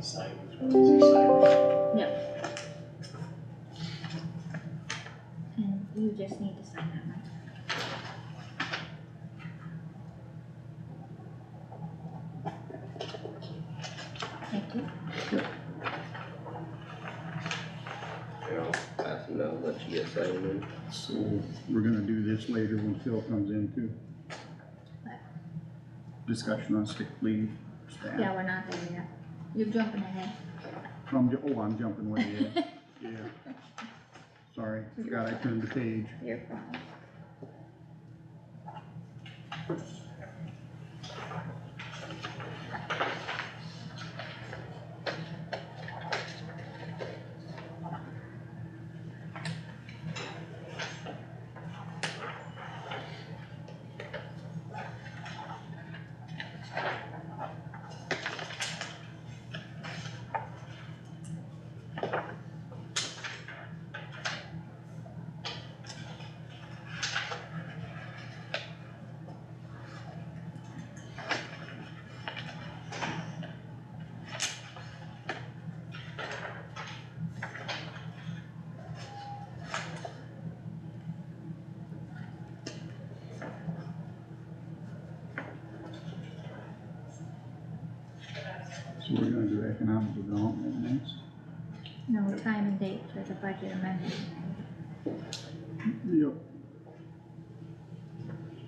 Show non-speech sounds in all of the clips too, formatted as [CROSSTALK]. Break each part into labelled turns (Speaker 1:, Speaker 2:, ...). Speaker 1: Sidewalks, what is your sidewalk?
Speaker 2: And Hmm, you just need to sign that one. Thank you.
Speaker 3: Here, I'll pass them out, let you get signed in.
Speaker 4: So we're gonna do this later when Phil comes in too.
Speaker 2: What?
Speaker 4: Discussion on sick leave,
Speaker 2: Yeah,
Speaker 4: staff.
Speaker 2: we're not there yet. You're jumping ahead.
Speaker 4: I'm, ju- oh, I'm jumping way ahead, yeah. Sorry, forgot I turned the page.
Speaker 2: Your problem.
Speaker 4: So we're gonna do economic development next.
Speaker 2: No time and date for the budget amendment,
Speaker 4: Yep.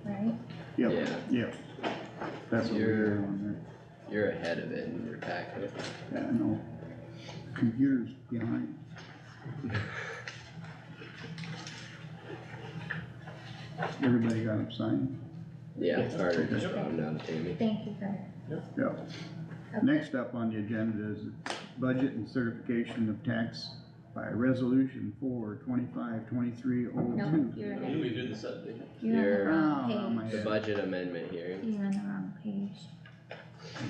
Speaker 2: right?
Speaker 4: Yep,
Speaker 3: Yeah,
Speaker 4: yep. That's what we're on
Speaker 3: you're ahead of it in your packet.
Speaker 4: there, yeah, I know. Computer's behind. Everybody got it signed?
Speaker 3: Yeah, it's harder just round down to Tammy.
Speaker 2: Thank you for.
Speaker 4: Yep.
Speaker 2: okay.
Speaker 4: Next up on the agenda is budget and certification of tax by resolution four twenty-five twenty-three oh
Speaker 2: No,
Speaker 4: two.
Speaker 2: you're
Speaker 1: When do
Speaker 2: ahead.
Speaker 1: we do the subdivision?
Speaker 2: You're on the
Speaker 3: You're-
Speaker 2: wrong
Speaker 4: my
Speaker 2: page.
Speaker 3: The
Speaker 4: head,
Speaker 3: budget amendment hearing,
Speaker 2: You're on the wrong page.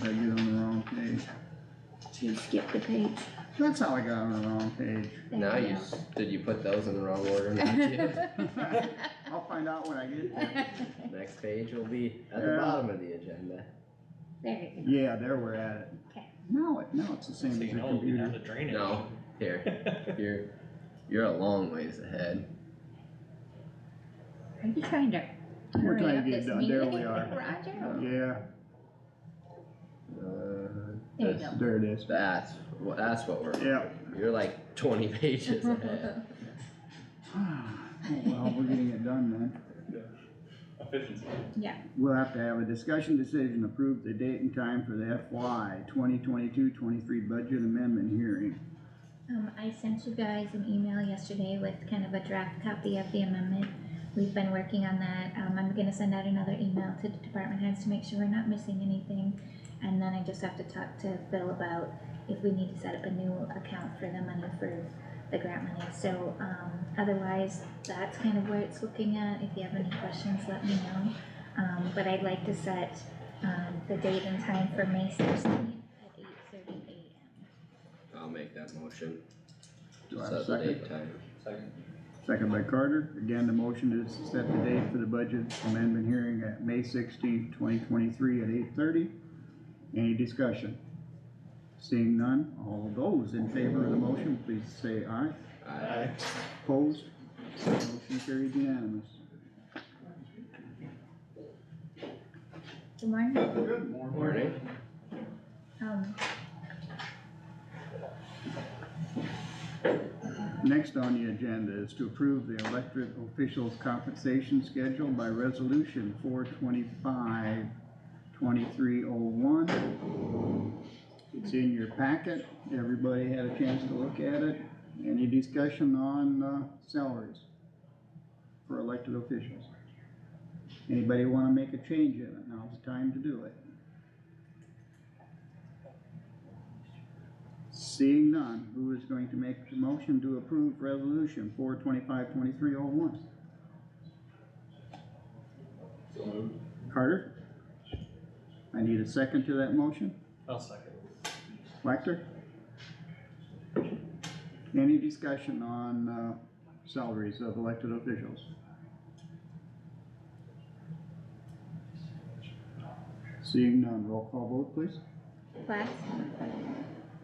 Speaker 4: did I get on the wrong page?
Speaker 2: You skipped the page.
Speaker 4: That's how I got on the wrong page.
Speaker 2: [LAUGHS] Thank
Speaker 3: now you, s- did you put those in the wrong
Speaker 2: [LAUGHS]
Speaker 3: order? Not yet.
Speaker 4: I'll find out when I get there.
Speaker 3: Next page will be at the
Speaker 4: Yeah.
Speaker 3: bottom of the agenda.
Speaker 2: There you go.
Speaker 4: Yeah, there we're at it.
Speaker 2: Okay.
Speaker 4: No, it- no, it's the same as your
Speaker 1: Saying, oh, we have
Speaker 4: computer.
Speaker 1: the drainage.
Speaker 3: No, here, you're, you're a long ways ahead.
Speaker 2: Are you trying to
Speaker 4: We're
Speaker 2: hurry
Speaker 4: trying to
Speaker 2: up
Speaker 4: get
Speaker 2: this
Speaker 4: done. There
Speaker 2: meeting,
Speaker 4: we are.
Speaker 2: [LAUGHS] Roger?
Speaker 4: Yeah,
Speaker 3: Uh,
Speaker 2: There you
Speaker 3: this-
Speaker 2: go.
Speaker 4: there it is.
Speaker 3: That's, wha- that's what we're,
Speaker 4: Yeah. [SIGHS]
Speaker 3: you're like
Speaker 2: [LAUGHS]
Speaker 3: twenty [LAUGHS] pages ahead.
Speaker 4: Oh, Well, we're getting it done then.
Speaker 1: Efficiency.
Speaker 4: We'll have to have a discussion decision, approve the date and time for the FY 2022-23 budget amendment hearing.
Speaker 2: Um, I sent you guys an email yesterday with kind of a draft copy of the amendment. We've been working on that. Um, I'm gonna send out another email to the department heads to make sure we're not missing anything. And then I just have to talk to Bill about if we need to set up a new account for the money for the grant money. So, um, otherwise, that's kind of where it's looking at. If you have any questions, let me know. Um, but I'd like to set, um, the date and time for May sixteenth at eight thirty AM.
Speaker 3: I'll make that motion.
Speaker 4: Do I have a
Speaker 3: Set the
Speaker 4: second?
Speaker 3: date time.
Speaker 1: Second.
Speaker 4: Second by Carter. Again, the motion is to set the date for the budget amendment hearing at May sixteenth, twenty twenty-three at eight thirty. Any discussion? Seeing none, all those in favor of the motion, please say aye.
Speaker 3: Aye.
Speaker 4: Opposed? Motion carried unanimous.
Speaker 2: Good morning.
Speaker 4: Good
Speaker 3: Morning.
Speaker 2: Um,
Speaker 4: Next on the agenda is to approve the elected officials' compensation schedule by resolution four twenty-five, twenty-three oh one. It's in your packet, everybody had a chance to look at it. Any discussion on, uh, salaries for elected officials? Anybody wanna make a change in it, now's the time to do it. Seeing none, who is going to make the motion to approve resolution four twenty-five twenty-three oh one?
Speaker 1: So moved.
Speaker 4: Carter? I need a second to that motion.
Speaker 1: I'll second.
Speaker 4: Whacter? Any discussion on, uh, salaries of elected officials? Seeing none, roll call vote please.
Speaker 2: Plath,